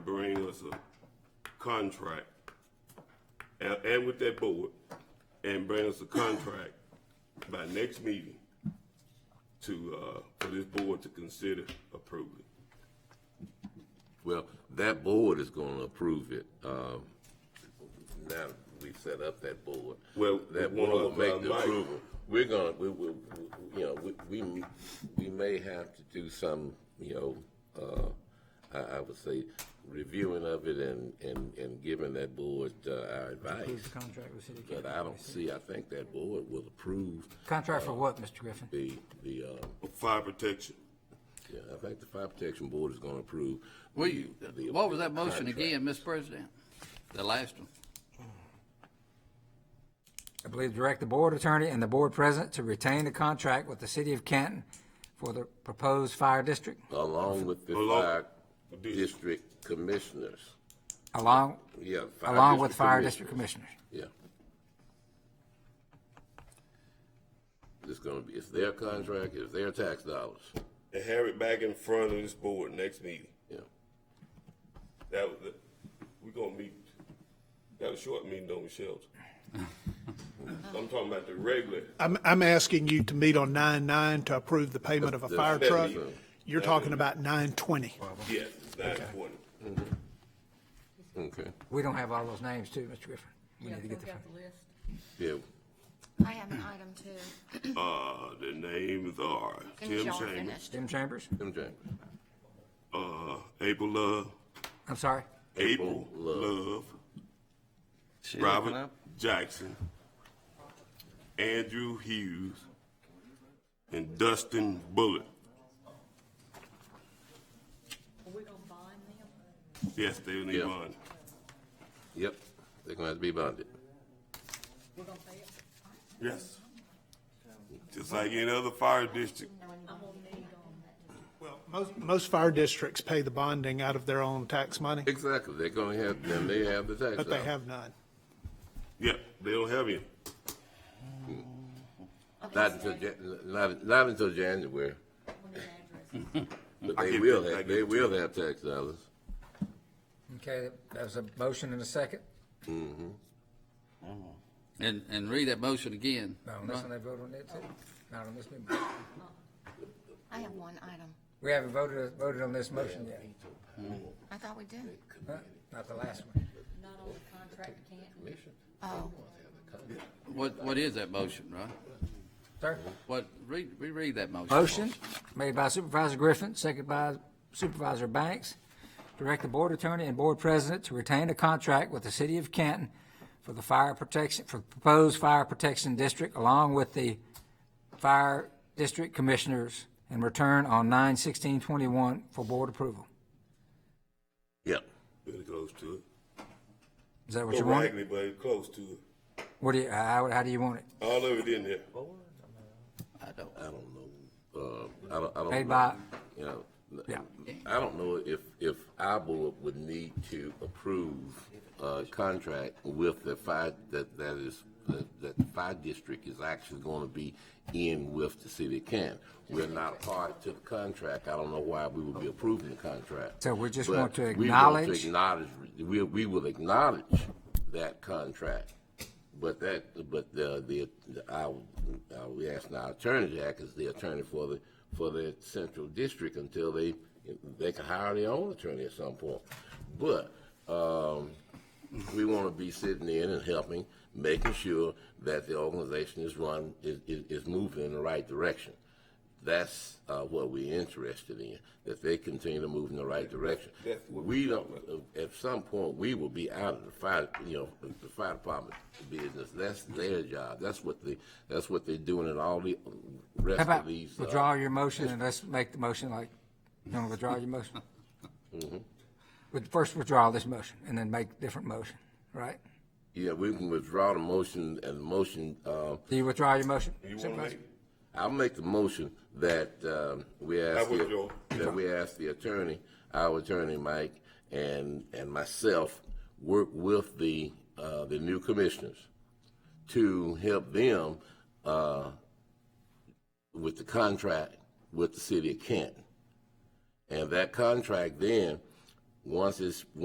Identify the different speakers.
Speaker 1: bring us a contract, and, and with that board, and bring us a contract by next meeting to, uh, for this board to consider approving.
Speaker 2: Well, that board is gonna approve it. Um, now we set up that board.
Speaker 1: Well,
Speaker 2: That
Speaker 1: one
Speaker 2: board will
Speaker 1: of, uh,
Speaker 2: make the
Speaker 1: Mike-
Speaker 2: approval. We're gonna, we will, you know, we, we, we may have to do some, you know, uh, I, I would say reviewing of it and, and, and giving that board, uh, our
Speaker 3: Approve the
Speaker 2: advice.
Speaker 3: contract with City
Speaker 2: But
Speaker 3: Council.
Speaker 2: I don't see, I think that board will approve
Speaker 3: Contract for what, Mr. Griffin?
Speaker 2: the, the, um,
Speaker 1: Fire protection,
Speaker 2: yeah, I think the fire protection board is gonna approve.
Speaker 4: Will you,
Speaker 2: the-
Speaker 4: what was that motion
Speaker 2: contract.
Speaker 4: again, Mr. President? The last one.
Speaker 3: I believe direct the board attorney and the board president to retain the contract with the city of Canton for the proposed fire district
Speaker 2: Along with the
Speaker 1: Along-
Speaker 2: fire
Speaker 1: Dis-
Speaker 2: district commissioners,
Speaker 3: along,
Speaker 2: yeah. fire
Speaker 3: along with fire
Speaker 2: commissioners.
Speaker 3: district commissioners.
Speaker 2: Yeah. It's gonna be, it's their contract, it's their tax dollars,
Speaker 1: and have it back in front of this board next meeting.
Speaker 2: yeah.
Speaker 1: That was, the- we gonna meet, got a short meeting, don't we, Shelton? I'm talking about the regular,
Speaker 5: I'm, I'm asking you to meet on nine nine to approve the payment of a
Speaker 2: The- the-
Speaker 5: fire truck.
Speaker 1: Definitely.
Speaker 5: You're talking about nine twenty.
Speaker 1: yes, it's nine twenty.
Speaker 2: Okay,
Speaker 3: We don't have all those names too, Mr. Griffin. We need to get the,
Speaker 2: yeah,
Speaker 6: I have an item too.
Speaker 1: Uh, the names are
Speaker 6: Since
Speaker 1: Tim
Speaker 6: y'all
Speaker 1: Chambers,
Speaker 6: finished.
Speaker 3: Tim Chambers?
Speaker 2: Tim James.
Speaker 1: uh, April Love,
Speaker 3: I'm sorry?
Speaker 1: April
Speaker 2: April
Speaker 1: Love, Robert Jackson, Andrew Hughes, and Dustin Bullitt.
Speaker 6: Are we gonna bind them?
Speaker 1: Yes, they in
Speaker 2: Yeah.
Speaker 1: bond.
Speaker 2: Yep, they're gonna have to be bonded.
Speaker 6: We're gonna pay it?
Speaker 1: Yes. Just like any other fire district.
Speaker 6: I'm gonna need them.
Speaker 5: Well, most, most fire districts pay the bonding out of their own tax money,
Speaker 2: Exactly, they're gonna have, then they have the tax
Speaker 5: but they
Speaker 2: dollars.
Speaker 5: have none.
Speaker 1: Yep, they don't have any.
Speaker 2: Not until, Jan- not, not until January, but
Speaker 1: I
Speaker 2: they
Speaker 1: give
Speaker 2: will
Speaker 1: you- I
Speaker 2: have,
Speaker 1: give
Speaker 2: they
Speaker 1: you-
Speaker 2: will have tax dollars.
Speaker 3: Okay, there's a motion and a second.
Speaker 4: And, and read that motion again.
Speaker 3: No, unless they vote on it too. Not on this meeting.
Speaker 6: I have one item.
Speaker 3: We haven't voted, voted on this motion yet.
Speaker 6: I thought we did.
Speaker 3: Huh? Not the last one.
Speaker 6: Not on the contract, can't.
Speaker 2: Commission.
Speaker 6: Oh,
Speaker 4: What, what is that motion, right?
Speaker 3: Sir?
Speaker 4: What, read, reread that motion.
Speaker 3: Motion made by Supervisor Griffin, second by Supervisor Banks. Direct the board attorney and board president to retain a contract with the city of Canton for the fire protection, for proposed fire protection district along with the fire district commissioners and return on nine sixteen twenty-one for board approval.
Speaker 2: Yep,
Speaker 1: Really close to it.
Speaker 3: Is that what
Speaker 1: Not
Speaker 3: you want?
Speaker 1: raggedy, but it's close to it.
Speaker 3: What do you, how, how do you want it?
Speaker 1: All of it in there.
Speaker 4: I don't,
Speaker 2: I don't know, uh, I don't, I don't.
Speaker 3: Paid
Speaker 2: know.
Speaker 3: by-
Speaker 2: You know,
Speaker 3: Yeah.
Speaker 2: I don't know if, if our board would need to approve a contract with the fire, that, that is, that that the fire district is actually gonna be in with the city of Canton. We're not a party to the contract, I don't know why we would be approving the contract.
Speaker 3: So we just
Speaker 2: But
Speaker 3: want to
Speaker 2: we want to
Speaker 3: acknowledge-
Speaker 2: acknowledge, we, we will acknowledge that contract. But that, but the, the, I, I, we asked our attorney, Jack is the attorney for the, for the central district until they, they can hire their own attorney at some point. But, um, we want to be sitting in and helping, making sure that the organization is run, is, is, is moving in the right direction. That's, uh, what we're interested in, that they continue to move in the right direction. We don't, uh, at some point, we will be out of the fire, you know, the fire department business. That's their job. That's what they, that's what they're doing in all the
Speaker 3: How
Speaker 2: rest
Speaker 3: about
Speaker 2: of these. uh,
Speaker 3: withdraw your motion and let's make the motion like, you want to withdraw your motion? But first withdraw this motion and then make different motion, right?
Speaker 2: Yeah, we can withdraw the motion and the motion, uh,
Speaker 3: Do you withdraw your motion?
Speaker 1: You wanna
Speaker 3: Supervisor?
Speaker 1: make it?
Speaker 2: I'll make the motion that um, we ask,
Speaker 1: I
Speaker 2: the-
Speaker 1: withdraw.
Speaker 2: that we ask the attorney, our attorney, Mike, and, and myself, work with the, uh, the new commissioners to help them uh, with the contract with the city of Canton. And that contract then, once it's,